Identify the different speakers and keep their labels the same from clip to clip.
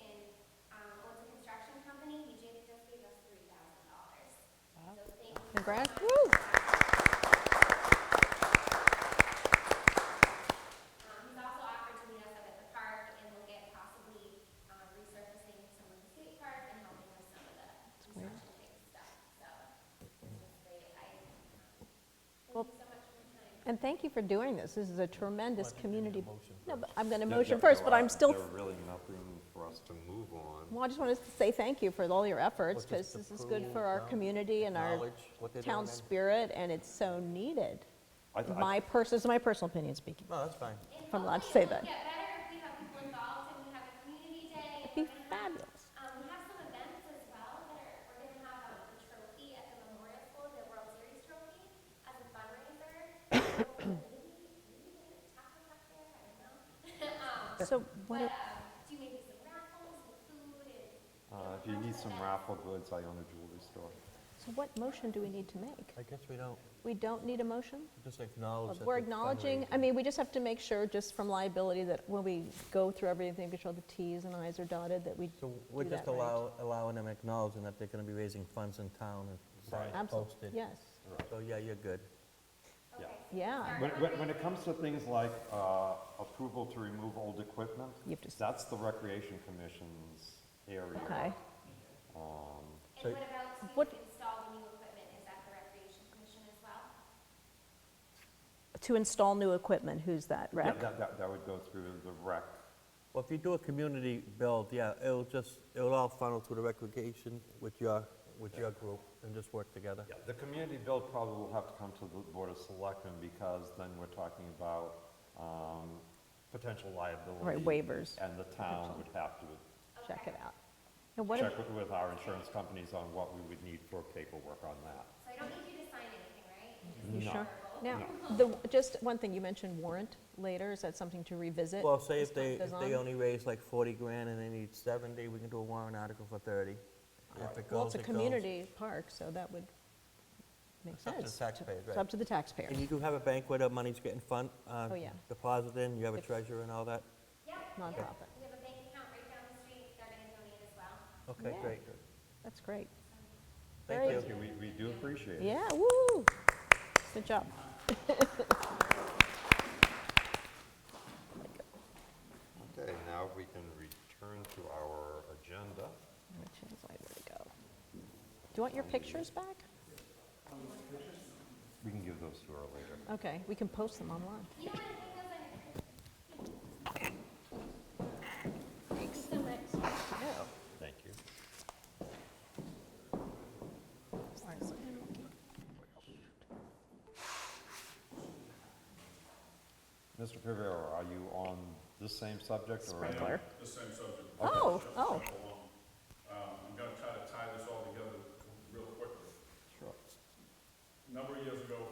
Speaker 1: um, Um, um, um,
Speaker 2: And thank you for doing this. This is a tremendous community. No, but I'm going to
Speaker 3: No,
Speaker 2: motion
Speaker 3: no,
Speaker 2: first,
Speaker 3: no,
Speaker 2: but I'm
Speaker 3: uh,
Speaker 2: still,
Speaker 3: There really nothing for us to move on.
Speaker 2: well, I just wanted to say thank you for all your efforts,
Speaker 4: Well, just
Speaker 2: because this is good for
Speaker 4: approve,
Speaker 2: our
Speaker 4: um,
Speaker 2: community and our
Speaker 4: acknowledge what they're doing
Speaker 2: town
Speaker 4: then.
Speaker 2: spirit, and it's so needed.
Speaker 3: I th- I-
Speaker 2: My person, this is my personal opinion speaking,
Speaker 4: No, that's fine.
Speaker 2: if I'm allowed to say that.
Speaker 1: Get better if we have people involved and we have a community day.
Speaker 2: It'd be fabulous.
Speaker 1: Um, we have some events as well that are, we're gonna have um, a trophy at the Memorial School, the World Series trophy, as a fundraiser. Um, maybe- maybe there's a taco truck there, I don't know. Um,
Speaker 2: So what,
Speaker 1: But,
Speaker 2: are-
Speaker 1: um, do maybe some raffles and food and.
Speaker 3: Uh, If you need some raffle goods, I own a jewelry store.
Speaker 2: so what motion do we need to make?
Speaker 4: I guess we don't,
Speaker 2: We don't need a motion?
Speaker 4: just acknowledge that.
Speaker 2: We're
Speaker 4: the
Speaker 2: acknowledging, I
Speaker 4: fundraiser-
Speaker 2: mean, we just have to make sure, just from liability, that when we go through everything, make sure the Ts and Is are dotted, that we do
Speaker 4: So we're just
Speaker 2: that right.
Speaker 4: allow, allowing them acknowledging that they're gonna be raising funds in town and it's all
Speaker 2: Absolutely,
Speaker 4: posted.
Speaker 2: yes,
Speaker 4: So, yeah, you're good.
Speaker 3: Yeah.
Speaker 2: yeah.
Speaker 3: When, when, when it comes to things like uh, approval to remove old equipment,
Speaker 2: You have to-
Speaker 3: that's the Recreation Commission's area.
Speaker 2: Okay,
Speaker 1: And what about to
Speaker 2: What-
Speaker 1: install the new equipment, is that the Recreation Commission as well?
Speaker 2: to install new equipment, who's that,
Speaker 3: Yeah,
Speaker 2: rec?
Speaker 3: That, that, that would go through the rec.
Speaker 4: Well, if you do a community build, yeah, it'll just, it'll all funnel through the recreation with your, with your group and just work together.
Speaker 3: Yeah, The community build probably will have to come to the Board of Selectmen because then we're talking about um, potential liability.
Speaker 2: Right, waivers.
Speaker 3: And the town would have to
Speaker 2: Check it out. And what,
Speaker 3: check
Speaker 2: ab-
Speaker 3: with- with our insurance companies on what we would need for paperwork on that.
Speaker 1: So I don't need you to sign anything, right? You just
Speaker 2: you
Speaker 1: need
Speaker 2: sure?
Speaker 1: approval.
Speaker 2: Now, the, just one thing, you mentioned warrant later, is that something to revisit?
Speaker 4: Well, say if
Speaker 2: as
Speaker 4: they,
Speaker 2: time goes
Speaker 4: if they
Speaker 2: on?
Speaker 4: only raise like 40 grand and they need 70, we can do a warrant article for 30. If it
Speaker 2: Well, it's
Speaker 4: goes,
Speaker 2: a
Speaker 4: it goes.
Speaker 2: community park, so that would make
Speaker 4: It's up
Speaker 2: sense.
Speaker 4: to the taxpayers,
Speaker 2: It's
Speaker 4: right.
Speaker 2: up to the taxpayer.
Speaker 4: And you do have a bank where the money's getting fund, uh,
Speaker 2: Oh, yeah.
Speaker 4: deposited in, you have a
Speaker 2: If-
Speaker 4: treasurer and all that?
Speaker 1: Yeah.
Speaker 2: Nonprofit.
Speaker 1: We have a bank account right down the street, they're gonna donate as well.
Speaker 4: Okay,
Speaker 2: Yeah.
Speaker 4: great.
Speaker 2: That's great.
Speaker 4: Thank
Speaker 2: Very
Speaker 4: you.
Speaker 3: Thank you, we, we do appreciate it.
Speaker 2: Yeah, woo! Good job.
Speaker 3: Okay, now we can return to our agenda.
Speaker 2: Which is, like, where to go. Do you want your pictures back?
Speaker 3: We can give those to her later.
Speaker 2: Okay, we can post them online.
Speaker 1: You don't wanna hang those on your
Speaker 3: Thank you. Mr. Pivera, are you on the same subject or? are you-
Speaker 2: Sprinkler.
Speaker 5: The same subject.
Speaker 2: Oh, oh,
Speaker 5: Um, I'm gonna try to tie this all together real quickly.
Speaker 3: Sure.
Speaker 5: A number of years ago,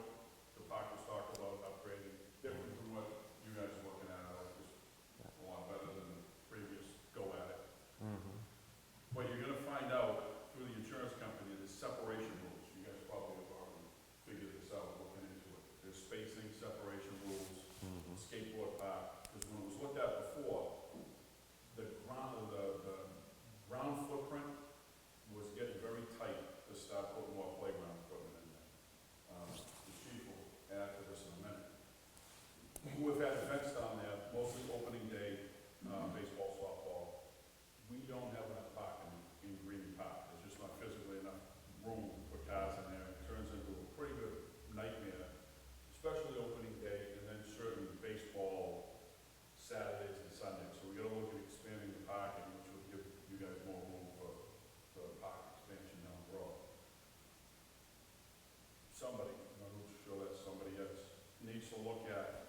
Speaker 5: the park was talked about upgrading, different from what you guys are looking at, it was a lot better than the previous go at it.
Speaker 3: Mm-hmm.
Speaker 5: What you're gonna find out through the insurance company is separation rules, you guys probably have already figured this out, looking into it. There's spacing, separation rules,
Speaker 3: Mm-hmm.
Speaker 5: skateboard park, because when it was looked at before, the ground, the, the ground footprint was getting very tight to start putting more playground equipment in there. Um, The chief will add to this in a minute. We've had events down there, mostly opening day, uh, baseball, softball. We don't have enough parking in Green Park, there's just not physically enough room for cars in there. It turns into a pretty good nightmare, especially opening day and then certain baseball Saturdays and Sundays, so we gotta look at expanding the parking, which would give you guys more room for, for park expansion down the road. Somebody, I'm not sure that's somebody else, needs to look at